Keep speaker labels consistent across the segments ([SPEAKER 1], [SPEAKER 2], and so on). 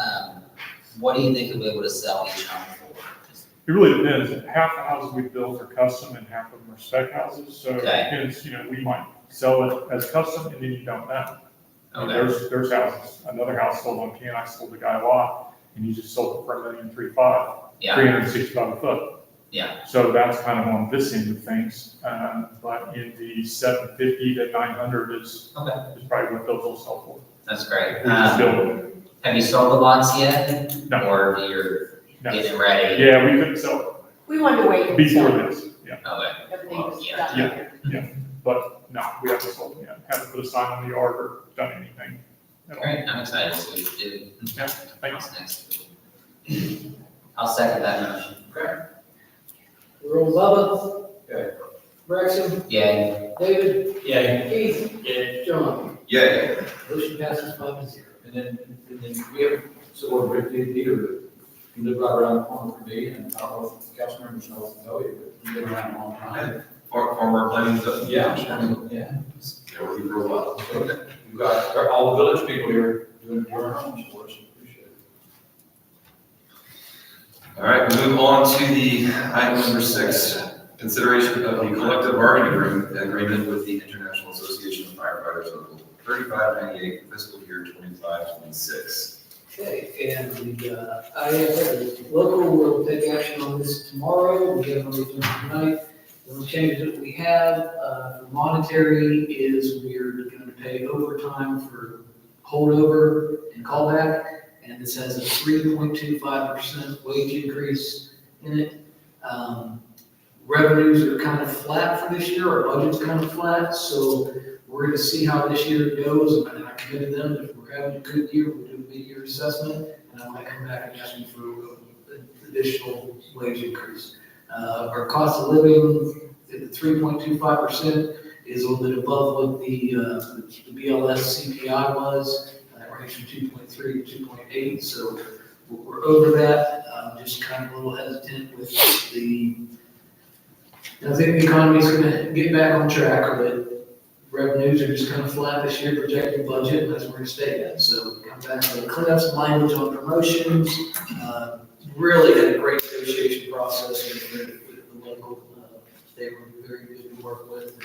[SPEAKER 1] um, What do you think you'll be able to sell each home for?
[SPEAKER 2] It really depends. Half the houses we build are custom and half of them are spec houses. So it
[SPEAKER 1] Okay.
[SPEAKER 2] depends, you know, we might sell it as custom and then you don't know. I mean,
[SPEAKER 1] Okay,
[SPEAKER 2] There's, there's houses, another house sold on Can, I sold the guy a lot and he just sold it for a million three five,
[SPEAKER 1] yeah,
[SPEAKER 2] three hundred and sixty-five a foot.
[SPEAKER 1] yeah,
[SPEAKER 2] So that's kind of on this end of things. Um, but in the seven fifty to nine hundred is,
[SPEAKER 1] okay,
[SPEAKER 2] is probably what those will sell
[SPEAKER 1] that's great.
[SPEAKER 2] for. We just
[SPEAKER 1] Um,
[SPEAKER 2] build it.
[SPEAKER 1] have you sold the lots yet?
[SPEAKER 2] No.
[SPEAKER 1] Or you're
[SPEAKER 2] No.
[SPEAKER 1] getting ready?
[SPEAKER 2] Yeah, we couldn't sell
[SPEAKER 3] We wanted to wait
[SPEAKER 2] it
[SPEAKER 3] until
[SPEAKER 2] before this, yeah.
[SPEAKER 1] Okay,
[SPEAKER 3] everything was
[SPEAKER 1] Yeah.
[SPEAKER 3] done.
[SPEAKER 2] Yeah. But no, we haven't sold it yet. Haven't put a sign on the yard or done anything at all.
[SPEAKER 1] great, I'm excited to see what you do.
[SPEAKER 2] Yeah, thanks.
[SPEAKER 1] What's next? I'll second that motion.
[SPEAKER 4] Earl Lovett. Braxton,
[SPEAKER 1] Yay,
[SPEAKER 4] David,
[SPEAKER 5] Yeah.
[SPEAKER 4] Keith,
[SPEAKER 5] Yeah.
[SPEAKER 4] John.
[SPEAKER 5] Yeah.
[SPEAKER 4] Motion passes five to zero.
[SPEAKER 5] And then, and then we have, so we're Rick Peter, you live right around the corner from me, and I don't know if council members know, know you, but you live around a long time.
[SPEAKER 6] Far- Farmer Plains up.
[SPEAKER 5] Yeah, sure, yeah.
[SPEAKER 6] Yeah, we grew up.
[SPEAKER 5] So We've got our- all the village people here doing their homes for us, appreciate it.
[SPEAKER 6] All right, we move on to the item number six, consideration of the collective bargaining agreement- agreement with the International Association of Firefighters Local thirty-five ninety-eight for fiscal year twenty-five, twenty-six.
[SPEAKER 4] Okay, and the, uh, I have a local will take action on this tomorrow, we have another one tonight. The only changes that we have, uh, for monetary is we're gonna pay overtime for holdover and callback, and this has a three point two five percent wage increase in it. Um, revenues are kind of flat for this year, our budget's kind of flat, so we're gonna see how this year goes, and I committed them, if we're having a good year, we'll do a mid-year assessment, and I might come back and ask you for an additional wage increase. Uh, our cost of living, at three point two five percent, is a little bit above what the, uh, the BLS CPI was, uh, we're actually two point three, two point eight, so we're, we're over that, um, just kind of a little hesitant with the, I think the economy's gonna get back on track, but revenues are just kind of flat this year, projected budget, and that's where it's staying at. So come back to clean up some language on promotions. Uh, Really had a great negotiation process with the- with the local. uh, They were very good to work with. and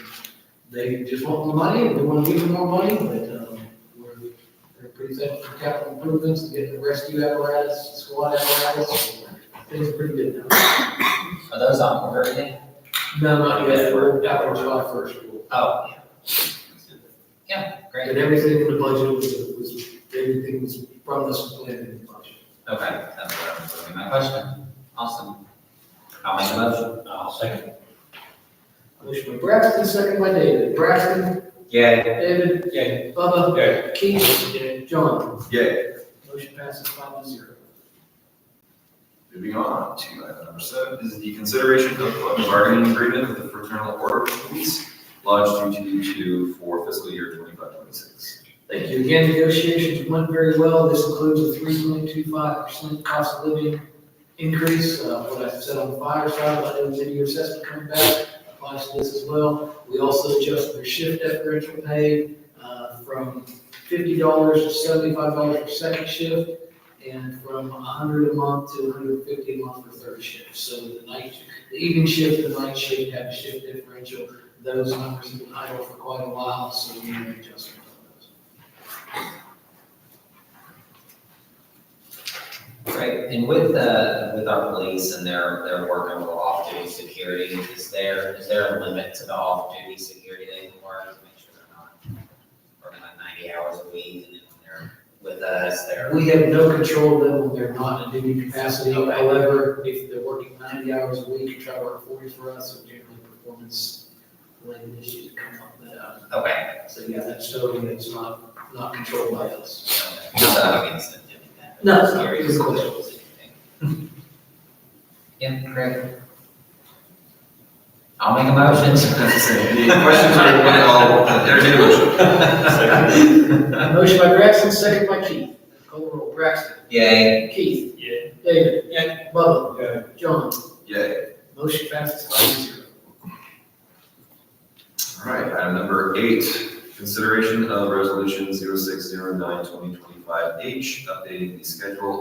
[SPEAKER 4] They just want more money, and we want to give them more money, but um, we're they're pretty thankful for capital improvements, getting the rescue apparatus, squad apparatus. Things are pretty good now.
[SPEAKER 1] are those on order yet?
[SPEAKER 4] No, not yet, we're out on July first.
[SPEAKER 1] Oh, yeah. Yeah, great.
[SPEAKER 4] And everything in the budget was, was, everything was from this plan in the budget.
[SPEAKER 1] Okay, that's what was gonna be my question. Awesome. I'll make a motion.
[SPEAKER 5] I'll second.
[SPEAKER 4] Motion by Braxton, second by David. Braxton,
[SPEAKER 1] Yay.
[SPEAKER 4] David,
[SPEAKER 5] Yeah.
[SPEAKER 4] Bubba,
[SPEAKER 5] Yeah.
[SPEAKER 4] Keith, and John.
[SPEAKER 6] Yay.
[SPEAKER 4] Motion passes five to zero.
[SPEAKER 6] Moving on to item number seven is the consideration of collective bargaining agreement with the Fraternal Order of Police lodged through two two for fiscal year twenty-five, twenty-six.
[SPEAKER 4] Thank you. Again, negotiations went very well. This includes a three point two five percent cost of living increase. Uh, what I said on the fire side, about the video assessment coming back, applies to this as well. We also adjusted the shift differential pay, uh, from fifty dollars to seventy-five dollars for second shift, and from a hundred a month to hundred and fifty a month for third shift. So the night, the evening shift, the night shift have a shift differential. Those numbers have been idle for quite a while, so we made adjustments on those.
[SPEAKER 1] Great. And with the, with our police and their, their work on the off-duty security, is there, is there a limit to the off-duty security they can work to make sure they're not working like ninety hours a week and then when they're with us, they're,
[SPEAKER 4] We have no control of them when they're not in duty capacity. However, if they're working ninety hours a week, you try to work forty for us, so generally performance related issues come up that, uh,
[SPEAKER 1] okay.
[SPEAKER 4] so yeah, that's totally, it's not, not controlled by us.
[SPEAKER 1] okay. Not that I'm against them doing that.
[SPEAKER 4] No, it's not.
[SPEAKER 1] Scary
[SPEAKER 4] It's cool.
[SPEAKER 1] individuals, anything. Yeah, great. I'll make a motion.
[SPEAKER 6] Any questions or comment at all? Entertain a motion.
[SPEAKER 4] Motion by Braxton, second by Keith. Call the roll. Braxton.
[SPEAKER 1] Yay.
[SPEAKER 4] Keith.
[SPEAKER 5] Yeah.
[SPEAKER 4] David. Bubba.
[SPEAKER 5] Yeah.
[SPEAKER 4] John.
[SPEAKER 6] Yay.
[SPEAKER 4] Motion passes five to zero.
[SPEAKER 6] All right, item number eight, consideration of resolution 0609-2025H, updating the schedule